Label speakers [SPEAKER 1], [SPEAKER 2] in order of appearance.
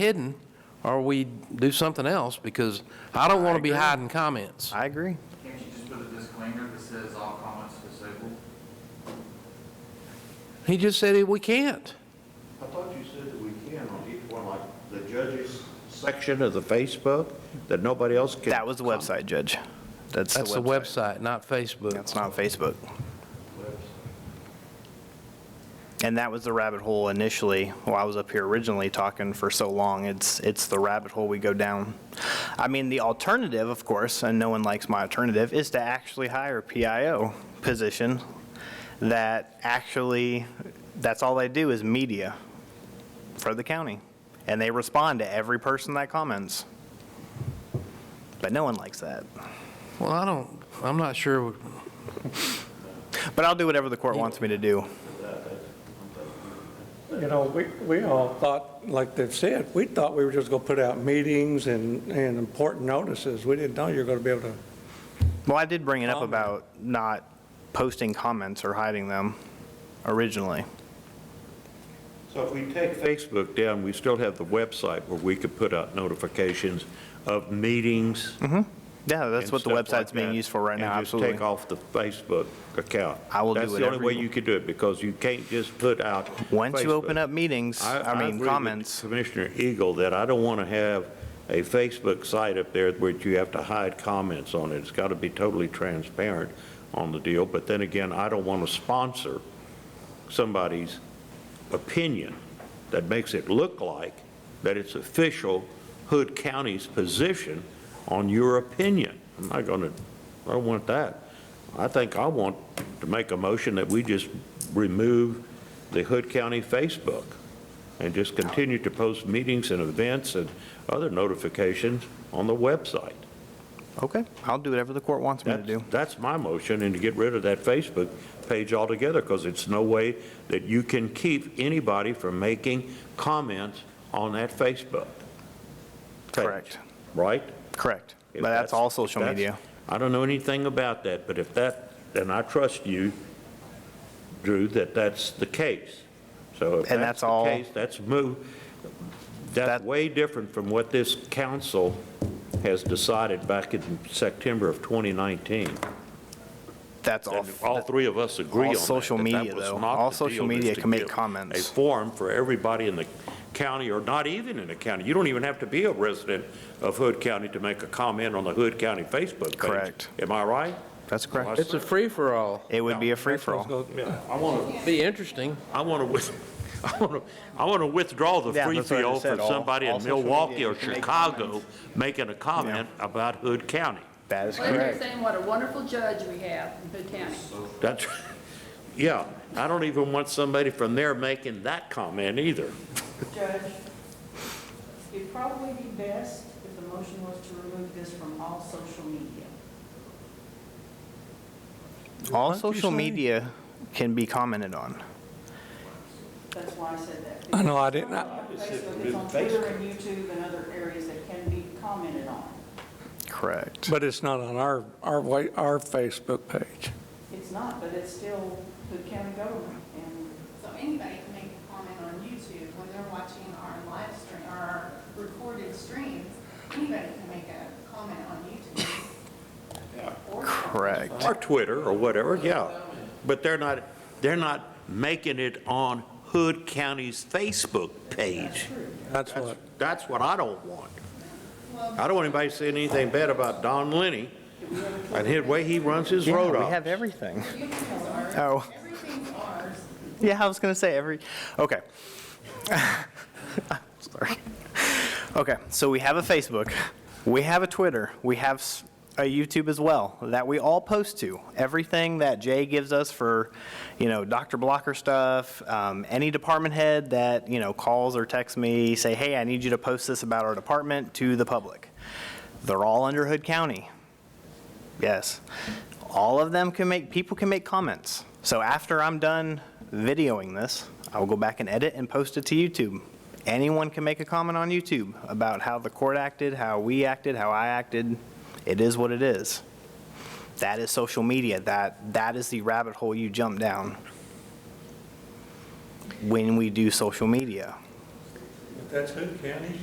[SPEAKER 1] hidden, or we do something else, because I don't want to be hiding comments.
[SPEAKER 2] I agree.
[SPEAKER 3] Can't you just put a disclaimer that says all comments disabled?
[SPEAKER 1] He just said he- we can't.
[SPEAKER 4] I thought you said that we can on each one, like the judges section of the Facebook, that nobody else can.
[SPEAKER 2] That was the website, Judge. That's
[SPEAKER 1] That's the website, not Facebook.
[SPEAKER 2] That's not Facebook.
[SPEAKER 4] Website.
[SPEAKER 2] And that was the rabbit hole initially, while I was up here originally talking for so long. It's, it's the rabbit hole we go down. I mean, the alternative, of course, and no one likes my alternative, is to actually hire a PIO position that actually, that's all they do is media for the county. And they respond to every person that comments. But no one likes that.
[SPEAKER 1] Well, I don't, I'm not sure,
[SPEAKER 2] But I'll do whatever the court wants me to do.
[SPEAKER 5] You know, we, we all thought, like they've said, we thought we were just going to put out meetings and, and important notices. We didn't know you were going to be able to,
[SPEAKER 2] Well, I did bring it up about not posting comments or hiding them originally.
[SPEAKER 4] So if we take Facebook down, we still have the website where we could put out notifications of meetings.
[SPEAKER 2] Yeah, Mm-hmm. that's
[SPEAKER 4] and
[SPEAKER 2] what the
[SPEAKER 4] stuff like
[SPEAKER 2] website's being
[SPEAKER 4] that,
[SPEAKER 2] used for right now,
[SPEAKER 4] And
[SPEAKER 2] absolutely.
[SPEAKER 4] just take off the Facebook account.
[SPEAKER 2] I will do
[SPEAKER 4] That's the only
[SPEAKER 2] whatever
[SPEAKER 4] way
[SPEAKER 2] you-
[SPEAKER 4] you could do it, because you can't just put out.
[SPEAKER 2] Once you open
[SPEAKER 4] Facebook.
[SPEAKER 2] up meetings, I
[SPEAKER 4] agree
[SPEAKER 2] mean,
[SPEAKER 4] with
[SPEAKER 2] comments,
[SPEAKER 4] Commissioner Eagle, that I don't want to have a Facebook site up there where you have to hide comments on it. It's got to be totally transparent on the deal, but then again, I don't want to sponsor somebody's opinion that makes it look like that it's official Hood County's position on your opinion. I'm not going to, I don't want that. I think I want to make a motion that we just remove the Hood County Facebook and just continue to post meetings and events and other notifications on the website.
[SPEAKER 2] okay, I'll do whatever the court wants me to
[SPEAKER 4] That's,
[SPEAKER 2] do.
[SPEAKER 4] that's my motion, and to get rid of that Facebook page altogether, because it's no way that you can keep anybody from making comments on that Facebook. page,
[SPEAKER 2] Correct,
[SPEAKER 4] Right?
[SPEAKER 2] correct.
[SPEAKER 4] If
[SPEAKER 2] But that's all social
[SPEAKER 4] if that's-
[SPEAKER 2] media.
[SPEAKER 4] I don't know anything about that, but if that, and I trust you, Drew, that that's the case. So if
[SPEAKER 2] And that's
[SPEAKER 4] that's the
[SPEAKER 2] all-
[SPEAKER 4] case, that's move, that's
[SPEAKER 2] That-
[SPEAKER 4] way different from what this council has decided back in September of 2019.
[SPEAKER 2] That's all.
[SPEAKER 4] And all three of us agree
[SPEAKER 2] all
[SPEAKER 4] on that.
[SPEAKER 2] social
[SPEAKER 4] that that
[SPEAKER 2] media,
[SPEAKER 4] was
[SPEAKER 2] though.
[SPEAKER 4] not
[SPEAKER 2] All
[SPEAKER 4] the
[SPEAKER 2] social
[SPEAKER 4] deal, is
[SPEAKER 2] media
[SPEAKER 4] to
[SPEAKER 2] can make
[SPEAKER 4] give
[SPEAKER 2] comments.
[SPEAKER 4] A forum for everybody in the county, or not even in the county. You don't even have to be a resident of Hood County to make a comment on the Hood County Facebook page.
[SPEAKER 2] Correct.
[SPEAKER 4] Am I right?
[SPEAKER 2] That's correct.
[SPEAKER 1] it's a free-for-all.
[SPEAKER 2] It would be a free-for-all.
[SPEAKER 5] go-
[SPEAKER 4] Yeah, I want to,
[SPEAKER 1] Be interesting.
[SPEAKER 4] I want to, I want to, I want to withdraw the
[SPEAKER 2] Yeah,
[SPEAKER 4] free
[SPEAKER 2] that's what I
[SPEAKER 4] field
[SPEAKER 2] just
[SPEAKER 4] for
[SPEAKER 2] said. All-
[SPEAKER 4] somebody
[SPEAKER 2] all
[SPEAKER 4] in
[SPEAKER 2] social media,
[SPEAKER 4] Milwaukee
[SPEAKER 2] you
[SPEAKER 4] or
[SPEAKER 2] can make
[SPEAKER 4] Chicago
[SPEAKER 2] comments.
[SPEAKER 4] making a comment about Hood County.
[SPEAKER 2] That is
[SPEAKER 6] Well, they're
[SPEAKER 2] correct.
[SPEAKER 6] saying what a wonderful judge we have in Hood County.
[SPEAKER 4] That's, yeah, I don't even want somebody from there making that comment either.
[SPEAKER 7] Judge, it'd probably be best if the motion was to remove this from all social media.
[SPEAKER 2] All
[SPEAKER 1] What you
[SPEAKER 2] social
[SPEAKER 1] say?
[SPEAKER 2] media can be commented on.
[SPEAKER 7] That's why I said that.
[SPEAKER 5] I know, I didn't- I-
[SPEAKER 7] Facebook, it's on Twitter and YouTube and other areas that can be commented on.
[SPEAKER 2] Correct.
[SPEAKER 5] but it's not on our, our, wa- our Facebook page.
[SPEAKER 7] It's not, but it's still Hood County government, and
[SPEAKER 8] So anybody can make a comment on YouTube when they're watching our live stream, or our recorded streams, anybody can make a comment on YouTube. Or-
[SPEAKER 2] Correct.
[SPEAKER 4] Or Twitter or whatever, yeah. But they're not, they're not making it on Hood County's Facebook page.
[SPEAKER 5] That's what,
[SPEAKER 4] That's what I don't want. I don't want anybody saying anything bad about Don Lenny and his way he runs his road
[SPEAKER 2] Yeah, we
[SPEAKER 4] off.
[SPEAKER 2] have everything.
[SPEAKER 8] YouTube's ours.
[SPEAKER 2] Oh.
[SPEAKER 8] Everything's ours.
[SPEAKER 2] Yeah, I was gonna say every, okay. Sorry. Okay, so we have a Facebook, we have a Twitter, we have s- a YouTube as well, that we all post to. Everything that Jay gives us for, you know, Dr. Blocker stuff, um, any department head that, you know, calls or texts me, say, hey, I need you to post this about our department to the public. They're all under Hood County. Yes. All of them can make, people can make comments. So after I'm done videoing this, I will go back and edit and post it to YouTube. Anyone can make a comment on YouTube about how the court acted, how we acted, how I acted. It is what it is. That is social media. That, that is the rabbit hole you jump down when we do social media.
[SPEAKER 5] that's Hood County.